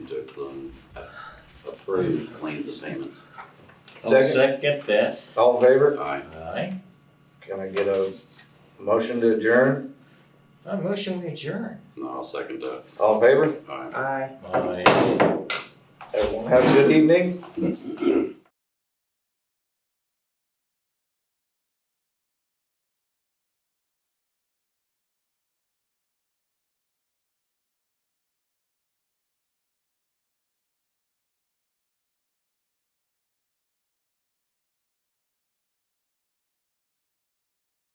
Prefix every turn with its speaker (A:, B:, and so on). A: to um, approve claims payments.
B: I'll
C: Second,
B: second that.
C: all in favor?
A: Aye.
B: Aye.
C: Can I get a motion to adjourn?
B: I motion we adjourn.
A: No, I'll second that.
C: All in favor?
A: Aye.
D: Aye.
B: Aye.
C: Everyone have a good evening.